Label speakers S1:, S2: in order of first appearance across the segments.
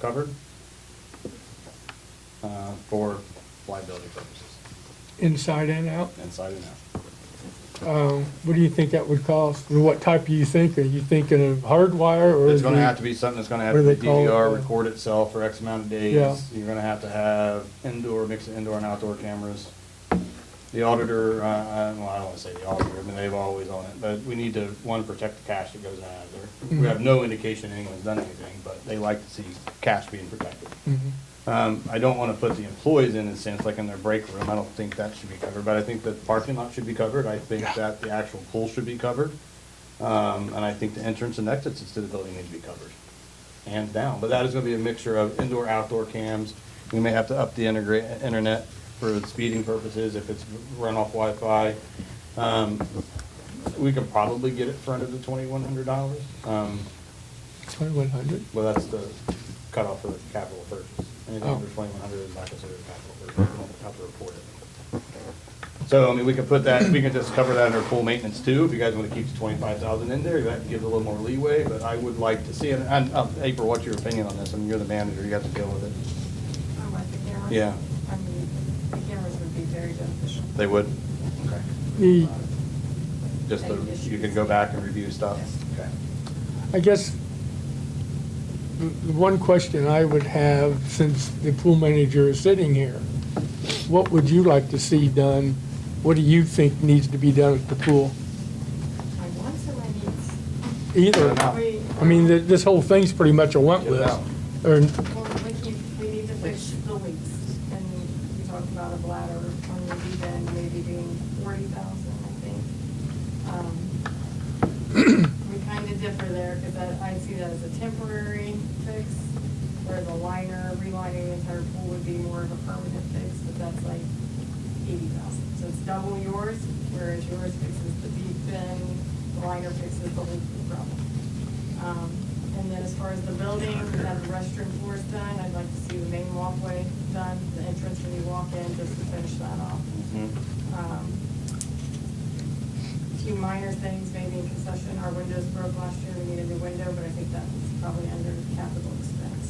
S1: covered uh, for liability purposes,
S2: inside and out.
S1: inside and out.
S2: Um, what do you think that would cost? And what type are you thinking? Are you thinking of hardwire or?
S1: It's
S2: is
S1: gonna
S2: it-
S1: have to be something that's gonna have
S2: what do
S1: to
S2: they call it?
S1: DVR, record itself for X amount of
S2: Yeah.
S1: days. You're gonna have to have indoor, mix of indoor and outdoor cameras. The auditor, uh, uh, well, I don't wanna say the auditor, I mean, they've always on it, but we need to, one, protect the cash that goes out of there. We have no indication anyone's done anything, but they like to see cash being protected.
S2: Mhm.
S1: Um, I don't wanna put the employees in a sense, like in their break room, I don't think that should be covered, but I think the parking lot should be covered, I think that the actual pool should be covered. Um, and I think the entrance and exits to the building need to be covered, hands down, but that is gonna be a mixture of indoor, outdoor cams. We may have to up the integra- internet for speeding purposes, if it's run off Wi-Fi. Um, we could probably get it for under the twenty-one hundred dollars, um,
S2: Twenty-one hundred?
S1: well, that's the cutoff for the capital purchase. Anything
S2: Oh.
S1: under twenty-one hundred is not considered a capital purchase, you don't have to report it. So, I mean, we could put that, we could just cover that under full maintenance too, if you guys wanna keep the twenty-five thousand in there, that gives a little more leeway, but I would like to see, and, and, uh, April, what's your opinion on this? I mean, you're the manager, you have to deal with it.
S3: Oh, I like the cameras.
S1: Yeah.
S3: I mean, the cameras would be very beneficial.
S1: They would? Okay.
S2: The,
S1: Just the, you can go back and review stuff? Okay.
S2: I guess, the, the one question I would have, since the pool manager is sitting here, what would you like to see done? What do you think needs to be done at the pool?
S3: My wants and my needs.
S2: Either,
S1: Wow.
S3: We- um,
S2: I mean, th- this whole thing's pretty much a want
S1: Get it
S2: list.
S1: out.
S2: Or,
S3: Well, we keep, we need to fix the leaks, and we talked about a bladder, or maybe then maybe being forty thousand, I think. Um, We kind of differ there, because I, I see that as a temporary fix, where the liner, relining the entire pool would be more of a permanent fix, but that's like eighty thousand. So it's double yours, whereas yours fixes the deep end, the liner fixes the whole pool problem. Um, And then as far as the building, we have the restroom floors done, I'd like to see the main walkway done, the entrance when you walk in, just to finish that off.
S1: Mm-hmm.
S3: Um, Few minor things, maybe in concession, our windows broke last year, we needed a new window, but I think that's probably under capital expense.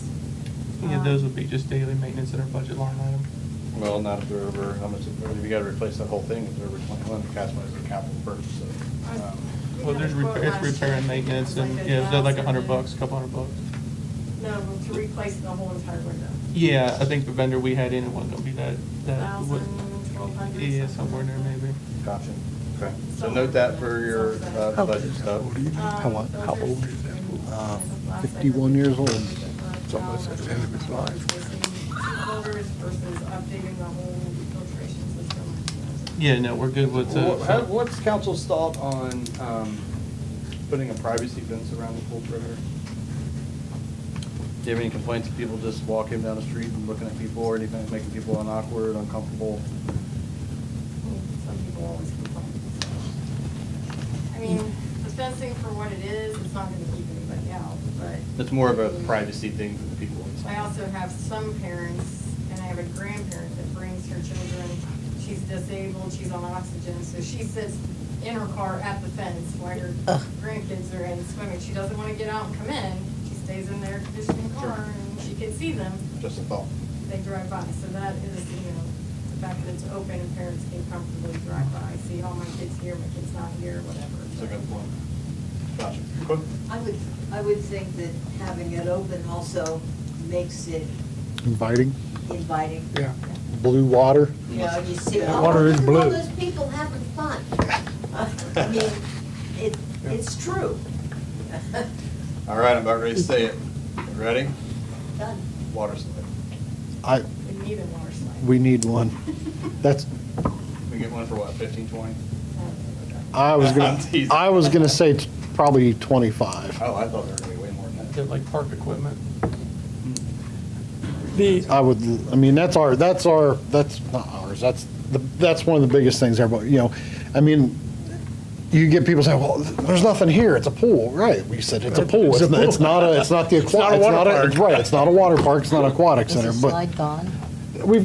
S4: Yeah, those
S3: Um,
S4: would be just daily maintenance in our budget line item.
S1: Well, not if they're over, how much, if you gotta replace that whole thing, if they're over twenty-one, the cash money is a capital purchase,
S3: I-
S1: so. um,
S3: we
S4: Well,
S3: had
S4: there's
S3: a quote
S4: repair, it's
S3: last year,
S4: repair and
S3: I think it was
S4: maintenance and,
S3: like
S4: yeah, is that like a hundred
S3: $1,000.
S4: bucks, a couple hundred bucks?
S3: No, to replace the whole entire window.
S4: Yeah, I think the vendor we had in, it wasn't gonna be that, that. what-
S3: Thousand, twelve hundred,
S4: Yeah,
S3: something
S4: somewhere in there
S3: like that.
S4: maybe.
S1: Gotcha. Okay, so note that for your uh, budget stuff.
S3: How long, how old is that
S5: Uh, 51 years old. It's almost at the end of its life.
S4: Yeah, no, we're good with,
S1: Wha- how-
S4: uh,
S1: What's council's thought on um, putting a privacy fence around the pool perimeter? Do you have any complaints of people just walking down the street and looking at people or anything, making people awkward, uncomfortable?
S3: Some people always complain. so. I mean, the fencing for what it is, it's not gonna keep anybody out, but.
S1: It's more of a privacy thing for the people
S3: I
S1: inside.
S3: also have some parents, and I have a grandparent that brings her children. She's disabled, she's on oxygen, so she sits in her car at the fence while her grandkids are in swimming. She doesn't want to get out and come in. She stays in their conditioned
S1: Sure.
S3: car, and she can see them.
S1: Just a thought.
S3: They drive by, so that is, you know, the fact that it's open and parents can comfortably drive by, see, oh, my kid's here, my kid's not here, whatever.
S1: It's a good point. Gotcha. Quick?
S6: I would, I would think that having it open also makes it
S5: Inviting,
S6: inviting.
S2: yeah.
S5: blue water.
S6: You know, you see,
S2: Yeah,
S6: oh,
S2: water is
S6: look at all
S2: blue."
S6: those people having fun. I mean, it, it's true.
S1: All right, I'm about ready to say it. Ready?
S6: Done.
S1: Water slide.
S5: I,
S3: We need a water slide.
S5: we need one. That's,
S1: We get one for what, fifteen, twenty?
S5: I was
S1: I'm
S5: gonna,
S1: teasing.
S5: I was gonna say t- probably 25.
S1: Oh, I thought there were gonna be way more than that.
S4: they're like park equipment.
S2: The,
S5: I would, I mean, that's our, that's our, that's not ours, that's, the that's one of the biggest things everybody, you know, I mean, you get people saying, well, there's nothing here, it's a pool, right? We said, it's a pool, it's not, it's not a, it's not the aquatic. It's not a water park. Right, it's not a water park, it's not an aquatic
S7: Is the
S5: center, but
S7: slide gone?
S5: we've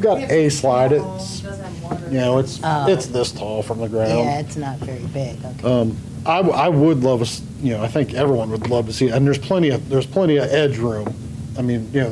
S5: got a slide,
S3: It
S5: it's,
S3: Doesn't have water.
S5: you know, it's,
S7: Oh.
S5: it's this tall from the ground.
S7: Yeah, it's not very big, okay.
S5: I, w- I would love, a s- you know, I think everyone would love to see, it. and there's plenty of, there's plenty of edge room. I mean, you know,